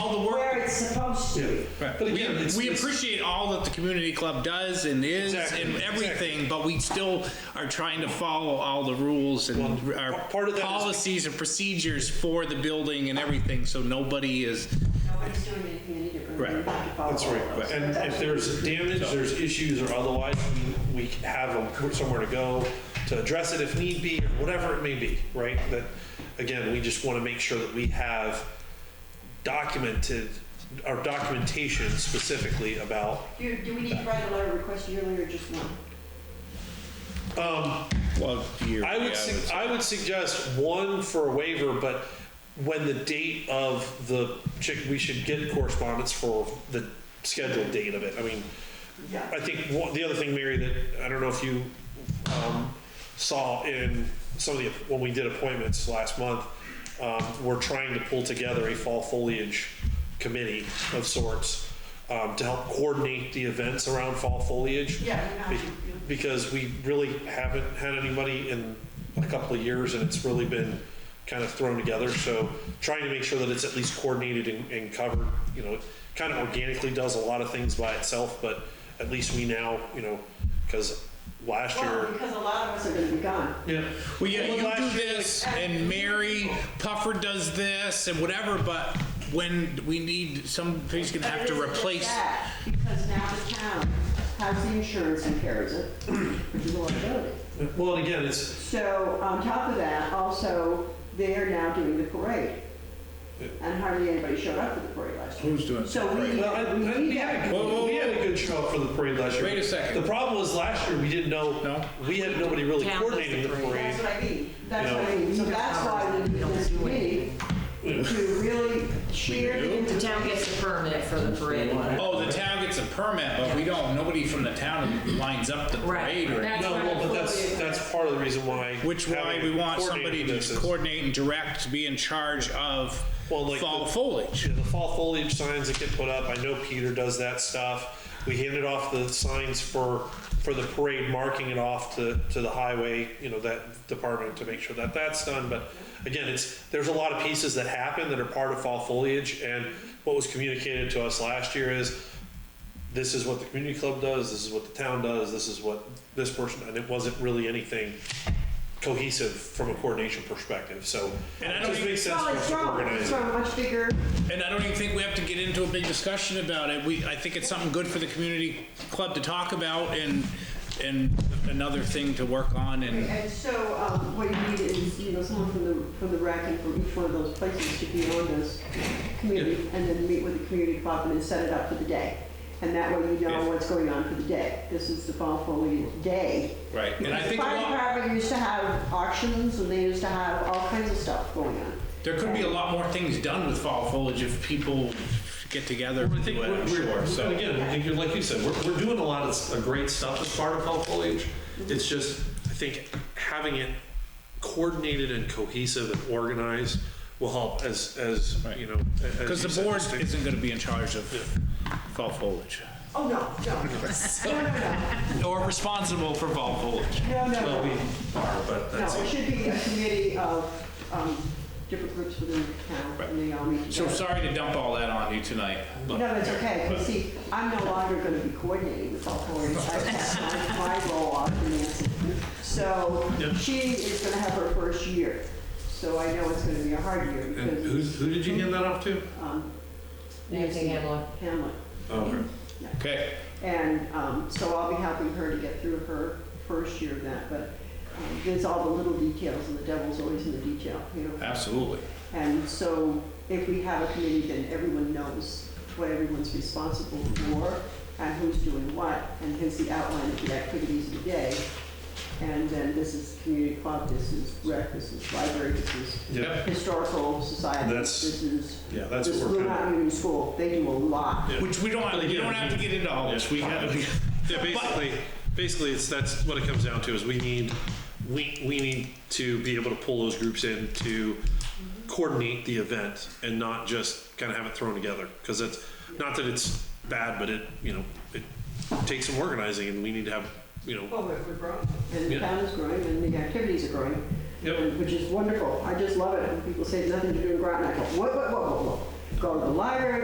street. Right. But again, We- it's- we it's- appreciate all that the community club does and is Exactly, and exactly. everything, but we still are trying to follow all the rules and Well, our p- part of that is- policies and procedures for the building and everything, so nobody is, Nobody's doing anything they need to Right. remove to follow. That's right. all those. And if there's damage, there's issues or otherwise, we- we have a- somewhere to go to address it if need be, or whatever it may be, right? But again, we just want to make sure that we have documented, our documentation specifically about, Do, do we need to write a letter request yearly or just one? well, you're. I would, yeah, sug- it's- I would suggest one for a waiver, but when the date of the, chick- we should get correspondence for the scheduled date of it. I mean, I think one, the other thing, Mary, that I don't know if you um, saw in some of the, when we did appointments last month, um, we're trying to pull together a fall foliage committee of sorts um, to help coordinate the events around fall foliage. Yeah, you know, Be- Because we really haven't had anybody in a couple of years and it's really been kind of thrown together. So trying to make sure that it's at least coordinated and, and covered, you know, it kind of organically does a lot of things by itself, but at least we now, you know, because last year. Well, because a lot of us are gonna be gone. Yeah. Well, yeah, Well, you last do year, like- this, and Mary Puffer does this, and whatever, but when we need, somebody's gonna have to But it isn't just replace. that, Because now the town has the insurance and carries it, which is a liability. Well, and again, it's, So on top of that, also, they are now doing the parade. And hardly anybody showed up for the parade last year. Who's doing So we parade? need, well, I- I- we we need had, that. a- Whoa, whoa, we had a good show up for the parade last year. Wait a second. The problem was last year, we didn't know, No. we had nobody really Town does the coordinating the parade. That's what I mean, that's You what I know. mean, so that's why we need this committee to really cheer. The town gets a permit for the parade. Oh, the town gets a permit, but we don't, nobody from the town lines up the Right. parade or anything. That's No, why well, the but that's, foliage- that's part of the reason why. Which why having we want somebody coordinating to this is- coordinate and direct, to be in charge of Well, like fall the- foliage. Yeah, the fall foliage signs that get put up, I know Peter does that stuff. We handed off the signs for, for the parade, marking it off to, to the highway, you know, that department to make sure that that's done. But again, it's, there's a lot of pieces that happen that are part of fall foliage. And what was communicated to us last year is, this is what the community club does, this is what the town does, this is what this person, and it wasn't really anything cohesive from a coordination perspective, so. And I it don't just even- makes sense Well, for it's us to grown, organize it's it. grown much bigger, And I don't even think we have to get into a big discussion about it. We, I think it's something good for the community club to talk about and, and another thing to work on and, and so, um, what you need is, you know, someone from the, from the rec and from each one of those places to be on this committee, and then meet with the community club and then set it up for the day. And that way you know what's going on for the day, this is the fall foliage day. right. And I The think a fire lot, department used to have auctions, and they used to have all kinds of stuff going on. there could be a lot more things done with fall foliage if people get together I and think do we're, it, I'm sure, so. and again, I think you're, like you said, we're, we're doing a lot of s- of great stuff as part of fall foliage. Mm-hmm. It's just, I think having it coordinated and cohesive and organized will help as, as, Right. you know. a- as Because you the said, board stick- isn't gonna be in charge of fall foliage. Oh, no, no, Or responsible for fall foliage. no, no, Well, no. we are, but uh, that's. No, it should be a committee of um, different groups within the town, and they all meet So together. sorry to dump all that on you tonight. No, that's okay, because see, I'm no longer going to be coordinating with all four, I passed my my role off to Nancy. So she is going to have her first year, so I know it's going to be a hard year, And who, because who did you hand that off to? um, Nancy Hamlin. Hamlet. Oh, Okay, And um, so I'll be helping her to get through her first year of that, but um, there's all the little details, and the devil's always in the detail, you know? absolutely. And so if we have a committee, then everyone knows what everyone's responsible for and who's doing what, and here's the outline of the activities of the day. And then this is community club, this is rec, this is library, this is Yep. historical society, That's- this is, Yeah, that's what this is we're Blue kinda- Mountain Union School, they do a lot. Which we don't, we don't have to get into all this, we have. Yeah, basically, basically, it's, that's what it comes down to, is we need, we, we need to be able to pull those groups in to coordinate the event and not just kind of have it thrown together, because it's, not that it's bad, but it, you know, it takes some organizing, and we need to have, you know, Well, we're we're growing, and the Yeah. town is growing, and the activities are growing, Yep. and- which is wonderful. I just love it when people say nothing to do in Groton. I go, whoa, whoa, whoa, whoa, whoa. Go to the library,